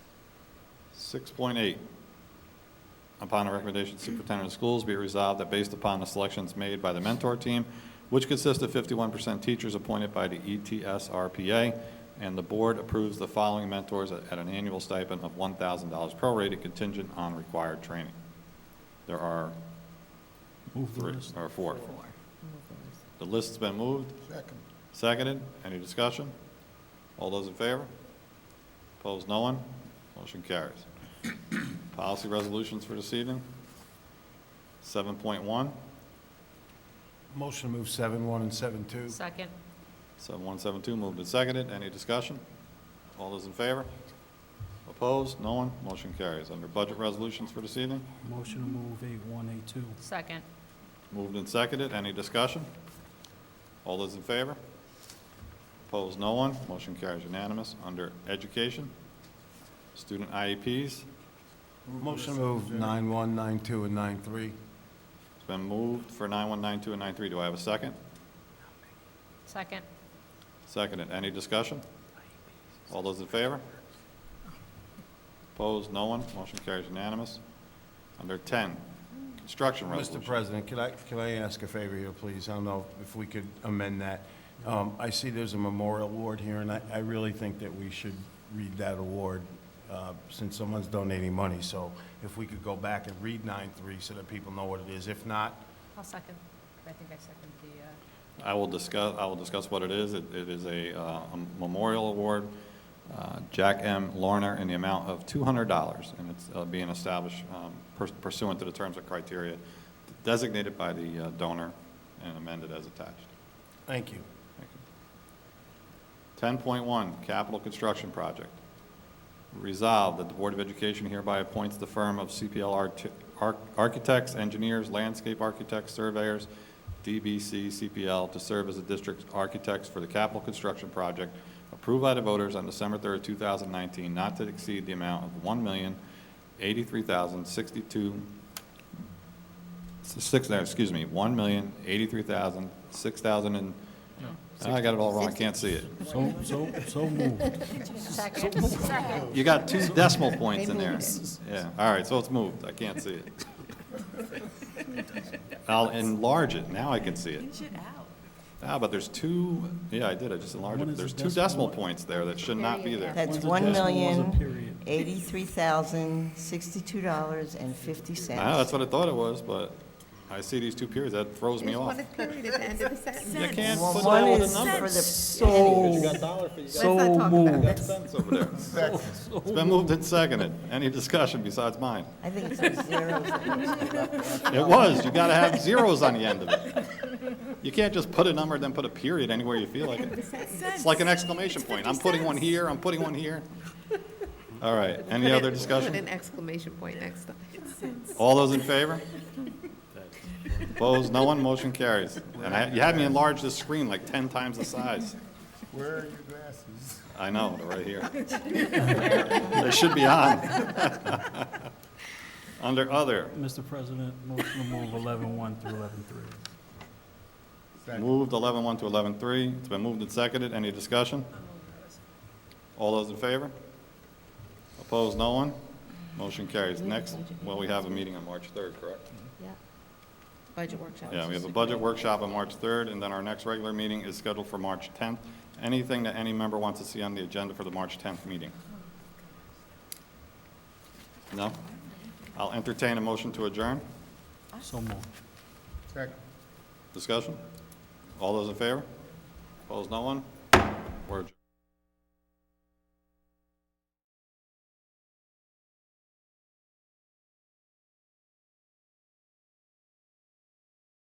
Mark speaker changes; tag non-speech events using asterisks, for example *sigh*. Speaker 1: 6.8, upon the recommendation of the superintendent of schools, be it resolved that based upon the selections made by the mentor team, which consists of 51% teachers appointed by the E ETSRPA, and the board approves the following mentors at at an annual stipend of $1,000 prorated contingent on required training. There are three, or four. The list's been moved.
Speaker 2: Second.
Speaker 1: Seconded. Any discussion? All those in favor? Opposed, no one? Motion carries. *coughs* Policy resolutions for this evening. 7.1, 7.1,
Speaker 3: Motion to move seven one and seven two.
Speaker 4: Second.
Speaker 1: 7172, moved and seconded. Any discussion? All those in favor? Opposed, no one? Motion carries. Under budget resolutions for this evening,
Speaker 5: Motion to move eight one, eight two.
Speaker 4: Second.
Speaker 1: moved and seconded. Any discussion? All those in favor? Opposed, no one? Motion carries unanimous. Under education, student E IEPs,
Speaker 3: Motion to move nine one, nine two, and nine three.
Speaker 1: It's been moved for 9192 and 93. Do I have a second?
Speaker 4: Second.
Speaker 1: Seconded. Any discussion? All those in favor? Opposed? No one? Motion carries unanimous. Under 10, construction
Speaker 3: Mr.
Speaker 1: resolution.
Speaker 3: President, could I, could I ask a favor here, please? I don't know if we could amend that. Um, I see there's a memorial award here, and I, I really think that we should read that award, uh, since someone's donating money. So if we could go back and read nine three so that people know what it is. If not,
Speaker 4: I'll second. I think I seconded the, uh,
Speaker 1: I will discuss, I will discuss what it is. It it is a uh, a memorial award, uh, Jack M. Lorner, in the amount of $200, and it's uh, being established um, purs- pursuant to the terms and criteria designated by the uh, donor and amended as attached.
Speaker 3: thank you.
Speaker 1: Ten point one, capital construction project. Resolved that the Board of Education hereby appoints the firm of CPL Arch- Arch- Architects, Engineers, Landscape Architects, Surveyors, DBC CPL, to serve as the district's architects for the capital construction project approved by the voters on December third, two thousand nineteen, not to exceed the amount of one million eighty-three thousand sixty-two six, no, excuse me, one million eighty-three thousand six thousand and, I got it all wrong, I can't see it.
Speaker 5: So, so, so moved.
Speaker 4: second. uh, *laughs* Second.
Speaker 1: You got two decimal points in there. Yeah, all right, so it's moved, I can't see it. I'll enlarge it, now I can see it. Ah, but there's two, yeah, I did, I just enlarged
Speaker 5: One
Speaker 1: it,
Speaker 5: is a
Speaker 1: theres two decimal
Speaker 5: decimal.
Speaker 1: points there that should not be there.
Speaker 6: That's
Speaker 5: One's a
Speaker 6: one
Speaker 5: decimal, one's a
Speaker 6: million,
Speaker 5: period.
Speaker 6: eighty-three thousand, sixty-two dollars and fifty cents.
Speaker 1: I know, Ah, that's what I thought it was, but I see these two periods, that throws me off.
Speaker 7: period at the end of the sentence.
Speaker 1: You can't
Speaker 6: Well,
Speaker 1: put
Speaker 6: one
Speaker 1: all the
Speaker 6: is for
Speaker 1: numbers.
Speaker 6: the
Speaker 5: So, so moved.
Speaker 1: That's over
Speaker 5: *laughs*
Speaker 1: there. It's been moved and seconded, any discussion besides mine?
Speaker 6: I think it's a zero.
Speaker 1: It was, you gotta have zeros on the end of it. You can't just put a number, then put a period anywhere you feel like it. It's like an exclamation point. I'm putting one here, I'm putting one here. All right, any other
Speaker 7: Put an
Speaker 1: discussion?
Speaker 7: exclamation point next time.
Speaker 1: All those in favor? Opposed, no one, motion carries. And I, you had me enlarge this screen like 10 times the size.
Speaker 2: Where are your glasses?
Speaker 1: I know, they're right here. They should be on. *laughs* Under other,
Speaker 5: Mr. President, motion to move eleven one through eleven three.
Speaker 1: moved 11-1 to 11-3. It's been moved and seconded, any discussion? All those in favor? Opposed, no one? Motion carries. Next, well, we have a meeting on March 3rd, correct?
Speaker 7: Budget workshop.
Speaker 1: Yeah, we have a budget workshop on March 3rd, and then our next regular meeting is scheduled for March 10th. Anything that any member wants to see on the agenda for the March 10th meeting? No? I'll entertain a motion to adjourn.
Speaker 5: So moved.
Speaker 2: Second.
Speaker 1: Discussion? All those in favor? Opposed, no one? We're adjourned.